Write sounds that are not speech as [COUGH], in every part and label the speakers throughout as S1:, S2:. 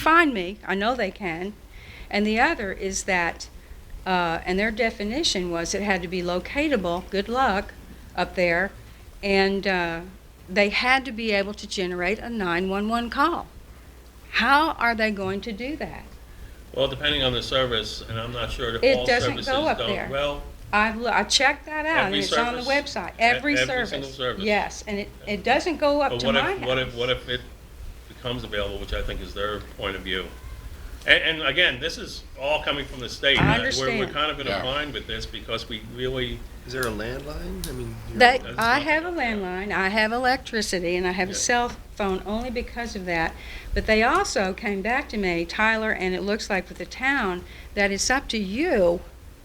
S1: find me. I know they can. And the other is that, uh, and their definition was it had to be locatable, good luck, up there, and uh, they had to be able to generate a 911 call. How are they going to do that?
S2: Well, depending on the service, and I'm not sure
S1: It
S2: that all
S1: doesn't
S2: services
S1: go up
S2: don't,
S1: there.
S2: well,
S1: I've, loo- I checked that out, and
S2: Every
S1: it's on the
S2: service?
S1: website.
S2: E-
S1: Every
S2: every
S1: service.
S2: single service?
S1: Yes, and it, it doesn't go up
S2: but
S1: to
S2: what
S1: my
S2: if, what if,
S1: house.
S2: what if it becomes available, which I think is their point of view? And, and again, this is all coming from the state.
S1: I
S2: Uh, We're, we're
S1: understand.
S2: kind of in a
S3: Yeah.
S2: bind with this because we really,
S3: Is there a landline? I mean, you're-
S1: That,
S2: That's
S1: I
S2: not-
S1: have a landline, I have electricity, and I have a
S2: Yeah.
S1: cell phone only because of that. But they also came back to me, Tyler, and it looks like with the town, that it's up to you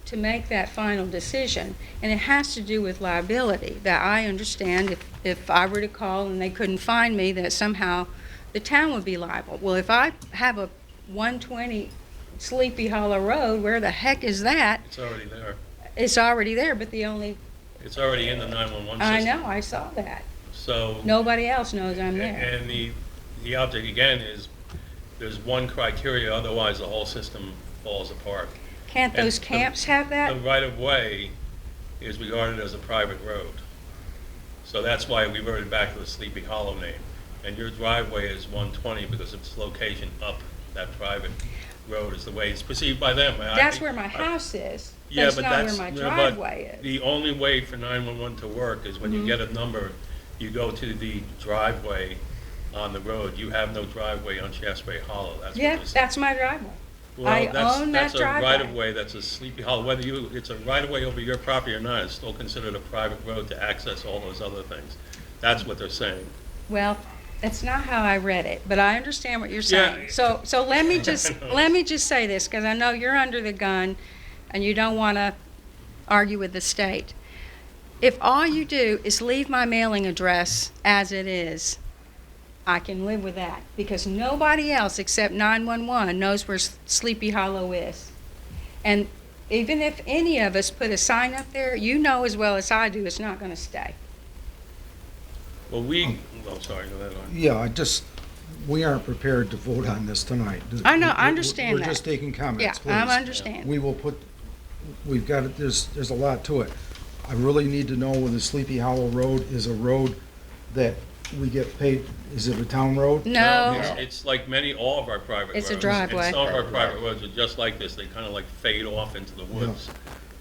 S1: to make that final decision. And it has to do with liability, that I understand if, if I were to call and they couldn't find me, that somehow the town would be liable. Well, if I have a 120 Sleepy Hollow Road, where the heck is that?
S2: it's already there.
S1: It's already there, but the only,
S2: It's already in the 911
S1: I
S2: system.
S1: know, I saw that.
S2: So.
S1: Nobody else knows I'm there.
S2: And the, the object again is, there's one criteria, otherwise the whole system falls apart.
S1: Can't
S2: and
S1: those
S2: the-
S1: camps have
S2: The
S1: that?
S2: right-of-way is regarded as a private road. So that's why we reverted back to the Sleepy Hollow name. And your driveway is 120 because of its location up that private road is the way it's perceived by them. And I
S1: That's
S2: think-
S1: where my
S2: I-
S1: house is.
S2: Yeah,
S1: That's
S2: but
S1: not where
S2: that's,
S1: my
S2: no, but
S1: driveway is. Mm-hmm.
S2: The only way for 911 to work is when you get a number, you go to the driveway on the road. You have no driveway on Shasberry Hollow. That's what
S1: Yeah,
S2: this-
S1: that's my driveway.
S2: Well,
S1: I
S2: that's-
S1: own that
S2: That's a
S1: driveway.
S2: right-of-way, that's a Sleepy Hollow. Whether you, it's a right-of-way over your property or not, it's still considered a private road to access all those other things. That's what they're saying.
S1: Well, that's not how I read it, but I understand what you're
S2: Yeah.
S1: saying. So, so let me just,
S2: [LAUGHS] I know.
S1: let me just say this, because I know you're under the gun and you don't want to argue with the state. If all you do is leave my mailing address as it is, I can live with that, because nobody else except 911 knows where S- Sleepy Hollow is. And even if any of us put a sign up there, you know as well as I do, it's not going to stay.
S2: Well, we, oh, sorry, go ahead, Lauren.
S4: Yeah, I just, we aren't prepared to vote on this tonight.
S1: I know, I
S4: We're- we're-
S1: understand that.
S4: We're just taking
S1: Yeah,
S4: comments, please.
S1: I understand.
S4: We will put, we've got, it. there's, there's a lot to it. I really need to know whether Sleepy Hollow Road is a road that we get paid, is it a town road?
S1: No,
S2: It's- It's like many, all of our private roads.
S1: It's a
S2: and
S1: driveway.
S2: some of our private roads are just like this, they kind of like fade off into the woods.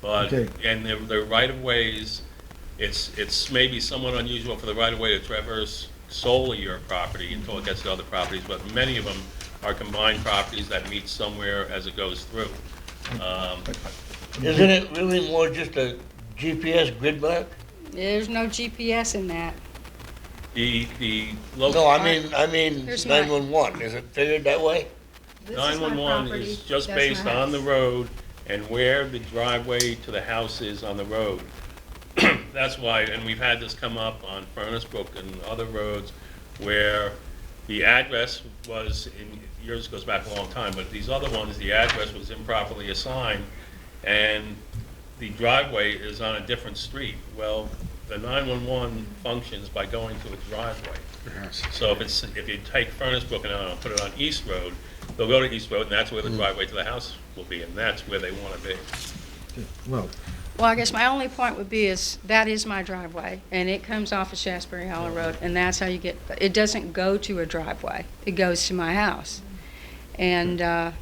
S2: But,
S4: Okay.
S2: and they're, they're right-of-ways, it's, it's maybe somewhat unusual for the right-of-way to traverse solely your property until it gets to other properties, but many of them are combined properties that meet somewhere as it goes through. Um,
S5: Isn't it really more just a GPS grid map?
S1: There's no GPS in that.
S2: The, the.
S5: No, I mean, I mean
S1: There's not.
S5: 911, is it figured that way?
S1: This is my
S2: 911
S1: property.
S2: is
S1: That's
S2: just
S1: my
S2: based on the
S1: house.
S2: road and where the driveway to the house is on the road. [CLEARS THROAT] That's why, and we've had this come up on Furnace Brook and other roads where the address was, and yours goes back a long time, but these other ones, the address was improperly assigned and the driveway is on a different street. Well, the 911 functions by going to a driveway. So if it's, if you take Furnace Brook and uh, put it on East Road, they'll go to East Road, and that's where the driveway to the house will be, and that's where they want to be.
S4: Well,
S1: Well, I guess my only point would be is, that is my driveway, and it comes off of Shasberry Hollow Road, and that's how you get, it doesn't go to a driveway, it goes to my house. And uh,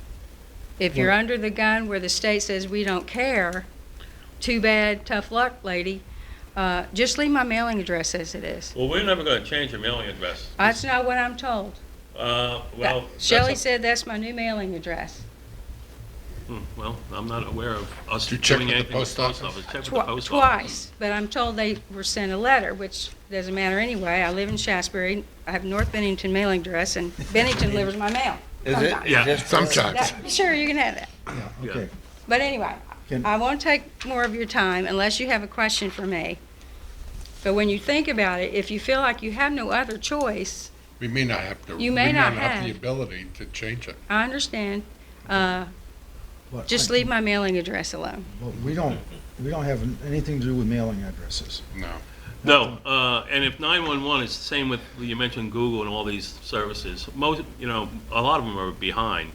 S1: if you're under the gun where the state says we don't care, too bad, tough luck, lady, uh, just leave my mailing address as it is.
S2: Well, we're never going to change your mailing address.
S1: That's not what I'm told.
S2: Uh, well. that's
S1: Shelley
S2: up-
S1: said that's my new mailing address.
S2: Hmm, Well, I'm not aware of us
S3: you check
S2: doing
S3: with the
S2: anything with
S3: post
S2: the post
S3: office?
S2: office. Check with the
S1: Twi-
S2: post office.
S1: Twice, but I'm told they were sent a letter, which doesn't matter anyway. I live in Shasberry, I have North Bennington mailing address, and Bennington delivers my mail.
S5: Is it?
S1: sometimes.
S2: Yeah.
S5: Just-
S3: sometimes.
S1: That- Sure, you can have that.
S4: yeah, okay.
S1: But anyway,
S4: Can-
S1: I won't take more of your time unless you have a question for me. But when you think about it, if you feel like you have no other choice,
S6: We may not have to.
S1: You may
S6: we
S1: not
S6: The
S1: have.
S6: ability to change it.
S1: I understand, uh,
S4: But
S1: just
S4: I-
S1: leave my mailing address alone.
S4: But we don't, we don't have anything to do with mailing addresses.
S6: No.
S2: No, uh, and if 911 is the same with, you mentioned Google and all these services, most, you know, a lot of them are behind.